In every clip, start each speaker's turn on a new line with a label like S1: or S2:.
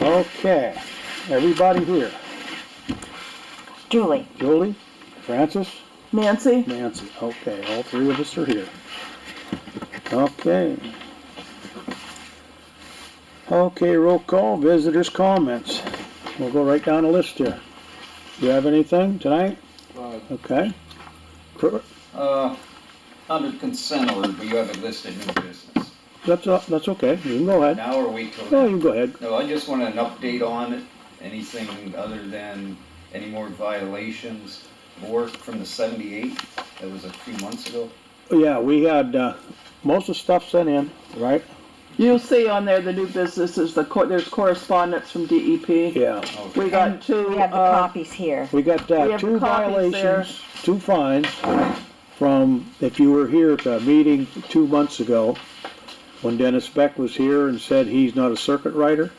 S1: Okay, everybody here.
S2: Julie,
S1: Julie, Francis,
S2: Nancy,
S1: Nancy. Okay, all three of us are here. Okay. Okay, roll call, visitors' comments. We'll go right down the list here. Do you have anything tonight?
S3: Uh,
S1: Okay. Per-
S3: uh, Under consent order, do you have it listed new business?
S1: That's, o- that's okay, you can go ahead.
S3: Now or wait till
S1: No,
S3: then?
S1: you can go ahead.
S3: No, I just want an update on it, anything other than any more violations or from the seventy-eight, that was a few months ago.
S1: Yeah, we had, uh, most of the stuff sent in, right?
S4: You'll see on there the new business is the, cor- there's correspondence from DEP.
S1: Yeah.
S4: We
S3: Oh, Okay.
S4: got two,
S2: we have the
S4: uh,
S2: copies here.
S1: We got
S4: We
S1: uh,
S4: have
S1: two
S4: copies there.
S1: violations, two fines from, if you were here at the meeting two months ago, when Dennis Beck was here and said he's not a circuit rider.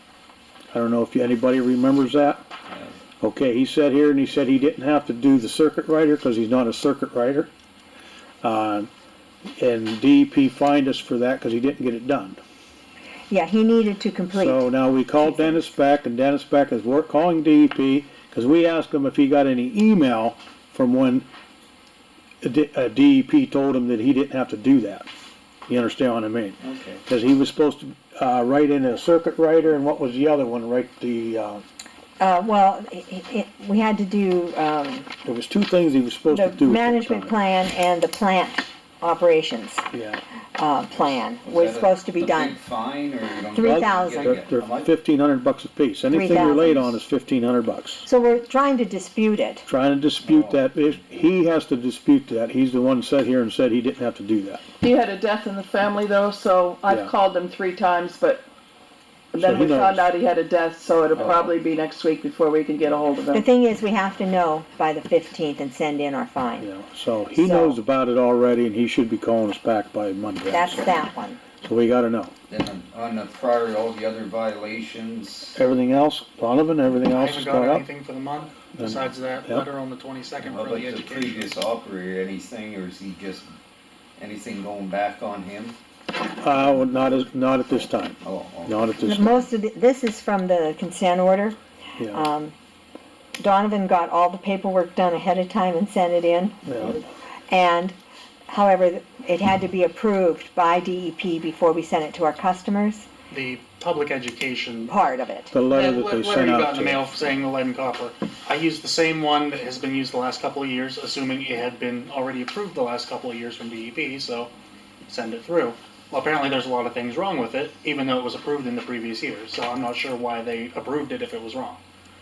S1: I don't know if anybody remembers that.
S3: Yeah.
S1: Okay, he sat here and he said he didn't have to do the circuit rider because he's not a circuit rider. Uh, And DEP fined us for that because he didn't get it done.
S2: Yeah, he needed to complete.
S1: So now we called Dennis Beck, and Dennis Beck is, we're calling DEP, because we asked him if he got any email from when a D- a DEP told him that he didn't have to do that. You understand what I mean?
S3: Okay,
S1: Because he was supposed to, uh, write in a circuit rider, and what was the other one, right, the, uh,
S2: Uh, well, i i i we had to do, um,
S1: there was two things he was supposed to
S2: the
S1: do. at that
S2: management
S1: time.
S2: plan and the plant operations,
S1: Yeah,
S2: uh, plan
S3: Was
S2: was
S3: that a-
S2: supposed to
S3: a
S2: be
S3: big
S2: done.
S3: Fine, or you don't?
S2: Three thousand.
S1: they're,
S3: How much?
S1: fifteen hundred bucks apiece. Anything you're late
S2: 3,000.
S1: on is fifteen hundred bucks.
S2: So we're trying to dispute it.
S1: Trying to
S2: Oh.
S1: dispute that, if, he has to dispute that, he's the one sat here and said he didn't have to do that.
S4: he had a death in the family though, so
S1: Yeah.
S4: I've called him three times, but
S1: So
S4: then
S1: who
S4: we found
S1: knows?
S4: out he had a death, so it'll
S3: Oh.
S4: probably be next week before we can get a hold of
S2: The
S4: him.
S2: thing is, we have to know by the fifteenth and send in our
S1: You
S2: fine.
S1: know, so he
S2: So-
S1: knows about it already and he should be calling us back by Monday.
S2: That's
S1: so-
S2: that one.
S1: So we gotta know.
S3: Then on- on the prior, all the other violations,
S1: Everything else, Donovan, everything
S5: I
S1: else
S5: haven't
S1: is
S5: got
S1: going up?
S5: anything for the month,
S1: Then-
S5: besides that
S1: Yep.
S5: letter on the twenty-second
S3: how
S5: for
S3: about
S5: the
S3: the
S5: education.
S3: previous operator, anything, or is he just, anything going back on him?
S1: Uh, well, not as, not at this time,
S3: Oh, okay.
S1: not at this,
S2: The-
S1: time.
S2: Most of, the- this is from the consent order.
S1: yeah,
S2: Um, Donovan got all the paperwork done ahead of time and sent it in.
S1: yeah,
S2: And however, it had to be approved by DEP before we sent it to our customers,
S5: The public education.
S2: part of it.
S1: the letter that
S5: le-
S1: they
S5: Letter
S1: sent
S5: you got
S1: out
S5: in the
S1: to
S5: mail
S1: us.
S5: saying the lead and copper. I used the same one that has been used the last couple of years, assuming it had been already approved the last couple of years from DEP, so send it through. Well, apparently there's a lot of things wrong with it, even though it was approved in the previous years, so I'm not sure why they approved it if it was wrong.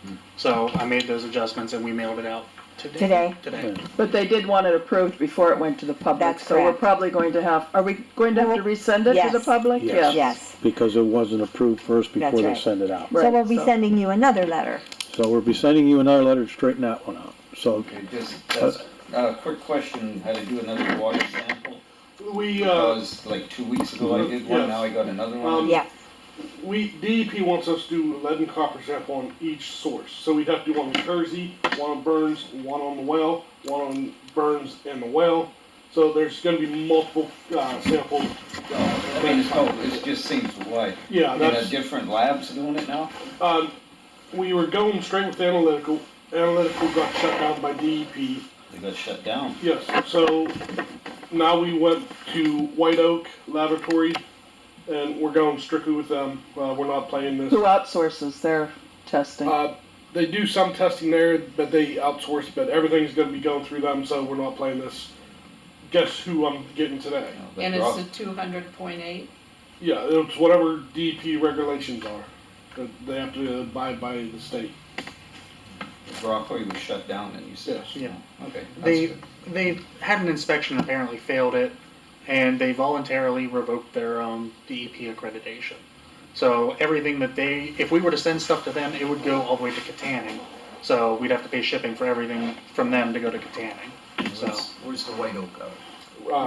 S1: Hmm.
S5: So I made those adjustments and we mailed it out today.
S2: Today.
S5: Today.
S4: But they did want it approved before it went to the public,
S2: That's
S4: so we're
S2: correct.
S4: probably going to have, are we going to have to resend it to the
S2: Yes.
S4: public?
S1: Yes.
S2: Yes.
S1: Because it wasn't approved first
S2: That's
S1: before they
S2: right.
S1: sent it out.
S2: So
S4: Right,
S2: we'll be
S4: so-
S2: sending you another letter.
S1: So we'll be sending you another letter to straighten that one out. So,
S3: Okay, just, that's, uh, quick question, how to do another water sample?
S6: We, uh,
S3: Because like two weeks ago I did one, now I got another one.
S6: Um,
S2: Yeah,
S6: we, DEP wants us to do lead and copper sample on each source, so we'd have to do one on Kersey, one on Burns, one on the well, one on Burns and the well. So there's gonna be multiple, uh, samples.
S3: I mean, it's, no, it just seems, why,
S6: Yeah,
S3: I mean, a
S6: that's,
S3: different labs doing it now?
S6: um, we were going straight with analytical, analytical got shut down by DEP.
S3: They got shut down.
S6: Yes, so now we went to White Oak Laboratory, and we're going strictly with them, uh, we're not playing this.
S4: Who outsources their testing?
S6: Uh, they do some testing there, but they outsource. But everything's going to be going through them, so we're not playing this. Guess who I'm getting today?
S3: You know, they
S7: And it's
S3: dropped-
S7: a two hundred point eight,
S6: Yeah, it's whatever DP regulations are. That they have to abide by the state.
S3: Rockaway was shut down and you said.
S6: Yes.
S5: Yeah.
S3: Oh, Okay, that's
S5: They,
S3: good.
S5: they had an inspection, apparently failed it, and they voluntarily revoked their um, own DEP accreditation. So everything that they, if we were to send stuff to them, it would go all the way to Katanning. So we'd have to pay shipping for everything from them to go to Katanning. So
S8: Where's the White Oak out?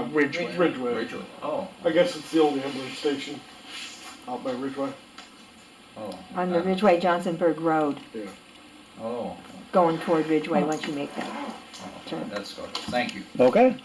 S6: Uh,
S5: Ridgeway.
S6: Ridgeway.
S8: Ridgeway. Oh.
S6: I guess it's the only ambulance station out by Ridgeway.
S3: Oh.
S2: on the
S3: uh,
S2: Ridgeway Johnsonburg Road,
S3: Oh,
S2: going toward Ridgeway, once you make that turn.
S3: that's good, thank you.
S1: okay,